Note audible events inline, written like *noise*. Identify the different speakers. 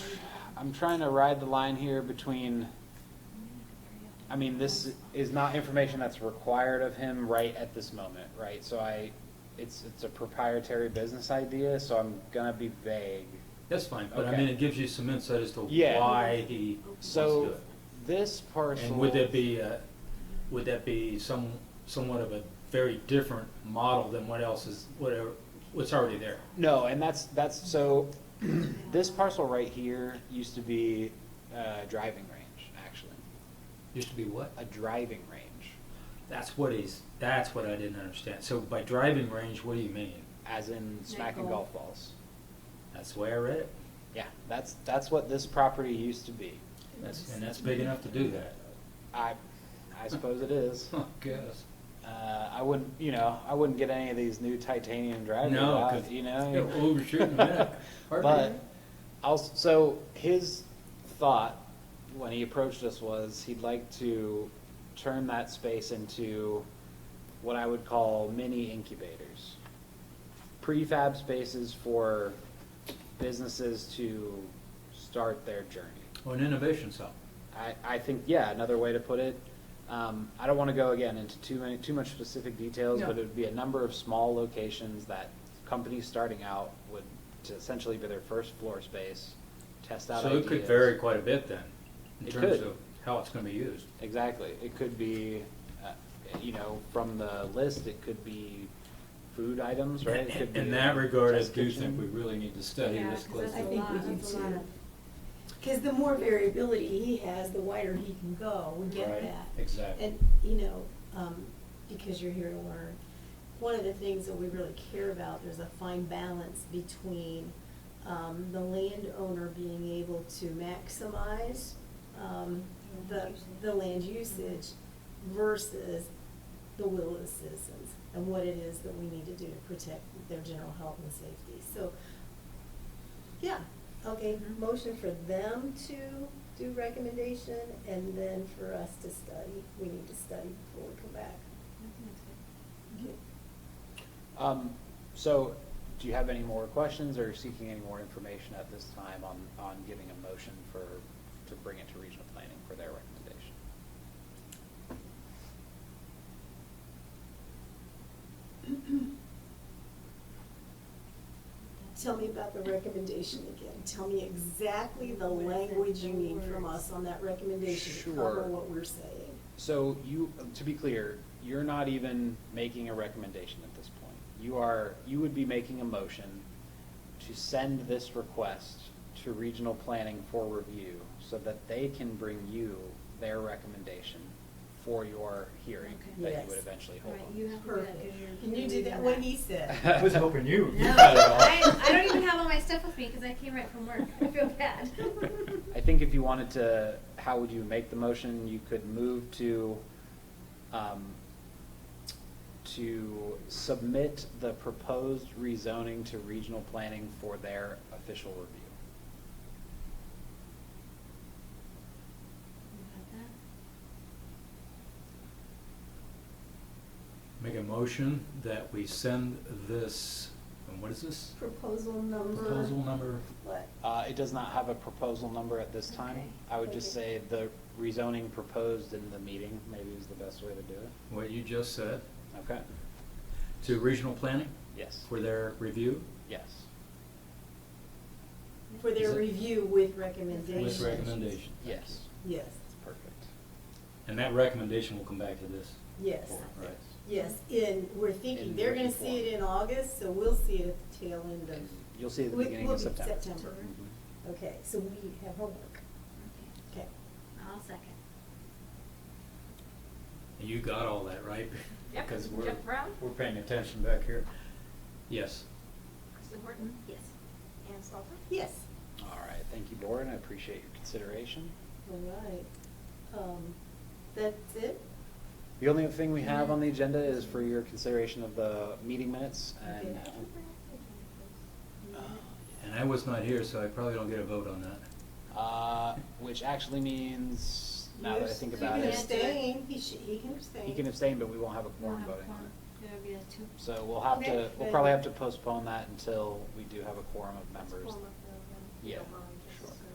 Speaker 1: I'm trying to ride the line here between, I mean, this is not information that's required of him right at this moment, right? So I, it's, it's a proprietary business idea, so I'm gonna be vague.
Speaker 2: That's fine, but I
Speaker 1: Okay.
Speaker 2: mean, it gives you some insight as to
Speaker 1: Yeah.
Speaker 2: why he wants to do
Speaker 1: So
Speaker 2: it.
Speaker 1: this parcel.
Speaker 2: And would that be, uh, would that be some, somewhat of a very different model than what else is, whatever, what's already there?
Speaker 1: No, and that's, that's, so, *clears throat* this parcel right here used to be a driving range, actually,
Speaker 2: Used to be what?
Speaker 1: a driving range.
Speaker 2: That's what he's, that's what I didn't understand. So by driving range, what do you mean?
Speaker 1: As in smacking
Speaker 3: golf.
Speaker 1: golf balls.
Speaker 2: That's the way I read it.
Speaker 1: Yeah, that's, that's what this property used to be.
Speaker 2: That's, and that's big enough to do that.
Speaker 1: I, I suppose it
Speaker 2: *laughs*
Speaker 1: is.
Speaker 2: I guess.
Speaker 1: Uh, I wouldn't, you know, I wouldn't get any of these new titanium drivers
Speaker 2: No,
Speaker 1: out,
Speaker 2: 'cause
Speaker 1: you
Speaker 2: You're
Speaker 1: know? *laughs*
Speaker 2: overshooting that.
Speaker 1: But, I'll, so his thought when he approached us was he'd like to turn that space into what I would call mini incubators. Prefab spaces for businesses to start their journey.
Speaker 2: Or an innovation cell.
Speaker 1: I, I think, yeah, another way to put it, um, I don't wanna go again into too many, too much specific details,
Speaker 2: No.
Speaker 1: but it would be a number of small locations that companies starting out would, to essentially be their first floor space, test out
Speaker 2: So
Speaker 1: ideas.
Speaker 2: it could vary quite a bit then, in
Speaker 1: It
Speaker 2: terms
Speaker 1: could.
Speaker 2: of how it's gonna be used.
Speaker 1: Exactly, it could be, uh, you know, from the list, it could be food items, right? It could
Speaker 2: In
Speaker 1: be
Speaker 2: that regard, I
Speaker 1: test
Speaker 2: do
Speaker 1: kitchen.
Speaker 2: think we really need to study
Speaker 3: Yeah,
Speaker 2: this
Speaker 3: 'cause that's
Speaker 2: closely.
Speaker 3: a
Speaker 4: think we
Speaker 3: lot,
Speaker 4: do
Speaker 3: that's a lot
Speaker 4: too.
Speaker 3: of-
Speaker 4: Because the more variability he has, the wider he can go, we get
Speaker 2: Right,
Speaker 4: that.
Speaker 2: exactly.
Speaker 4: And, you know, um, because you're here to learn, one of the things that we really care about, there's a fine balance between, um, the landowner being able to maximize, um, the, the land usage versus the will of the citizens and what it is that we need to do to protect their general health and safety. So yeah, okay,
Speaker 3: Mm-hmm.
Speaker 4: motion for them to do recommendation, and then for us to study, we need to study before we come back.
Speaker 3: Mm-hmm.
Speaker 1: Um, so, do you have any more questions or seeking any more information at this time on, on giving a motion for, to bring it to regional planning for their recommendation?
Speaker 4: Tell me about the recommendation again, tell me exactly the language you need from us on that recommendation to cover
Speaker 1: Sure.
Speaker 4: what we're saying.
Speaker 1: So you, to be clear, you're not even making a recommendation at this point. You are, you would be making a motion to send this request to regional planning for review so that they can bring you their recommendation for your hearing
Speaker 3: Okay.
Speaker 1: that you
Speaker 4: Yes.
Speaker 1: would eventually hold.
Speaker 3: Right, you have to do that 'cause you're-
Speaker 4: Perfect. Can you do
Speaker 3: you're
Speaker 4: that,
Speaker 3: doing
Speaker 4: what he
Speaker 1: *laughs*
Speaker 4: said? *laughs*
Speaker 2: I was hoping you.
Speaker 3: No, I, I don't even have all my stuff with me because I came right from work. I feel bad.
Speaker 4: *laughs*
Speaker 1: I think if you wanted to, how would you make the motion? You could move to, um, to submit the proposed rezoning to regional planning for their official review.
Speaker 2: Make a motion that we send this, and what is this?
Speaker 4: Proposal number.
Speaker 2: Proposal number,
Speaker 4: What?
Speaker 1: Uh, it does not have a proposal number at this
Speaker 3: Okay.
Speaker 1: time. I would just say
Speaker 4: Okay.
Speaker 1: the rezoning proposed in the meeting, maybe is the best way to do it.
Speaker 2: what you just said,
Speaker 1: Okay?
Speaker 2: to regional planning
Speaker 1: Yes,
Speaker 2: for their review
Speaker 1: yes.
Speaker 4: For
Speaker 2: Is
Speaker 4: their
Speaker 2: it-
Speaker 4: review with
Speaker 2: with
Speaker 4: recommendations.
Speaker 2: recommendation.
Speaker 1: Yes,
Speaker 4: Yes,
Speaker 1: perfect.
Speaker 2: And that recommendation will come back to this.
Speaker 4: yes.
Speaker 2: board, Right.
Speaker 4: Yes, and we're
Speaker 1: In
Speaker 4: thinking, they're gonna
Speaker 1: written
Speaker 4: see it
Speaker 1: form.
Speaker 4: in August, so we'll see it at the tail
Speaker 1: And
Speaker 4: end of,
Speaker 1: You'll see at the
Speaker 4: We-
Speaker 1: beginning
Speaker 4: we'll
Speaker 1: of
Speaker 4: be
Speaker 1: September.
Speaker 4: September.
Speaker 1: Mhm.
Speaker 4: okay, so we have homework, okay.
Speaker 3: I'll second.
Speaker 2: And You got all that, right? *laughs*
Speaker 3: Yep,
Speaker 2: Because we're,
Speaker 3: Jeff Brown?
Speaker 2: we're paying attention back here. Yes.
Speaker 3: Kristen
Speaker 4: Hmm?
Speaker 3: Horton? Yes. Ann Salter?
Speaker 4: Yes,
Speaker 1: All right, thank you, board, and I appreciate your consideration.
Speaker 4: all right. Um, that's it?
Speaker 1: The only other thing we have on the agenda is for your consideration of the meeting minutes and. uh,
Speaker 4: Okay.
Speaker 2: And I was not here, so I probably don't get a vote on that.
Speaker 1: Uh, which actually means, now that I think
Speaker 4: You
Speaker 1: about
Speaker 4: can
Speaker 1: it,
Speaker 4: abstain, he should, he can abstain.
Speaker 1: he can abstain, but we won't have a
Speaker 3: We'll
Speaker 1: quorum
Speaker 3: have
Speaker 1: voting.
Speaker 3: one. There'll be a two.
Speaker 1: So we'll have to,
Speaker 3: Okay.
Speaker 1: we'll probably have to postpone that until we do have a quorum of members.
Speaker 3: Quorum of the-
Speaker 1: Yeah.
Speaker 3: the-